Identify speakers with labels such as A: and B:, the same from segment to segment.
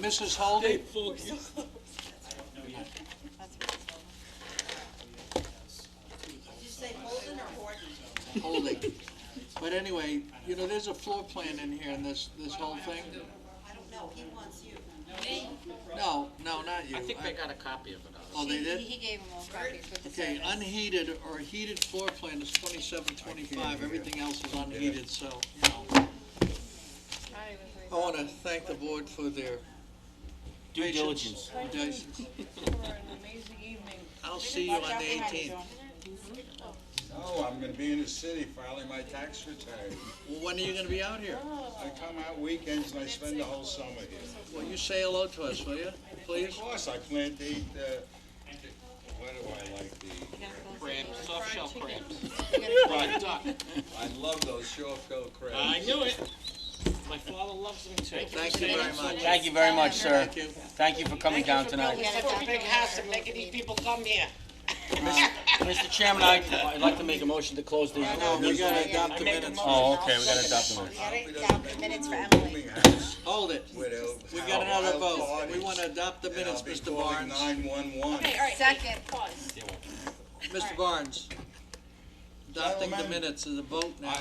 A: this is holding?
B: Did you say Holden or Horton?
A: Holding. But anyway, you know, there's a floor plan in here in this, this whole thing.
B: I don't know, he wants you.
A: No, no, not you.
C: I think they got a copy of it. already.
A: Oh, they did?
D: He gave them all copies with the
A: Okay,
D: service.
A: unheated or heated floor plan is twenty-seven, twenty-five, everything else is unheated, so, you know.
D: Probably was
A: I wanna thank the board for their
E: Due
A: patience.
E: diligence.
A: Due diligence.
D: for an amazing evening.
A: I'll see you on the eighteenth.
F: Oh, I'm gonna be in the city filing my tax return.
A: When are you gonna be out here?
F: I come out weekends and I spend the whole summer here.
A: Will you say hello to us, will you,
F: Of
A: please?
F: course, I plan to eat, uh, what do I like to eat?
C: Crabs, soft shell crabs.
F: Fried
C: Duck.
F: I love those shore-filled crabs.
C: I knew it. My father loves them too.
A: Thank you very much.
E: Thank you very much, sir.
A: Thank you.
E: Thank you for coming down tonight.
D: a big house and
C: making these people come here.
E: Mr. Chairman, I'd, I'd like to make a motion to close the.
A: No, Oh, we gotta adopt the minutes.
E: Oh, okay, we gotta adopt the motion.
F: We don't make no rooming house
A: Hold it.
F: with a-
A: We
F: how
A: got another
F: wild
A: vote. We
F: parties,
A: wanna adopt the
F: and I'll
A: minutes,
F: be
A: Mr.
F: calling
A: Barnes.
F: 911.
D: Second.
A: Mr. Barnes. Adopting the
F: Gentlemen.
A: minutes is a vote now.
F: I-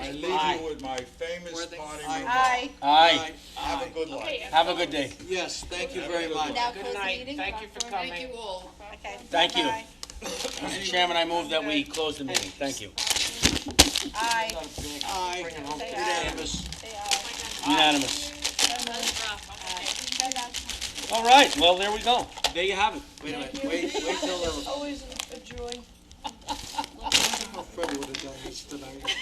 F: I
E: Aye.
F: leave you with my famous
A: Worthing.
F: party
A: Aye.
F: remark.
E: Aye,
F: Have a good life.
E: have a good day.
A: Yes, thank you very much.
D: Now
C: Good
D: close the
C: night.
D: meeting.
C: Thank you for coming.
D: all. Okay.
E: Thank you.
D: Bye-bye.
E: Mr. Chairman, I move that we close the meeting. Thank you.
D: Aye.
A: Aye, unanimous.
E: Unanimous. All right, well, there we go. There you have it.
A: Wait a minute, wait, wait till. Always a joy. Fred would have done this tonight.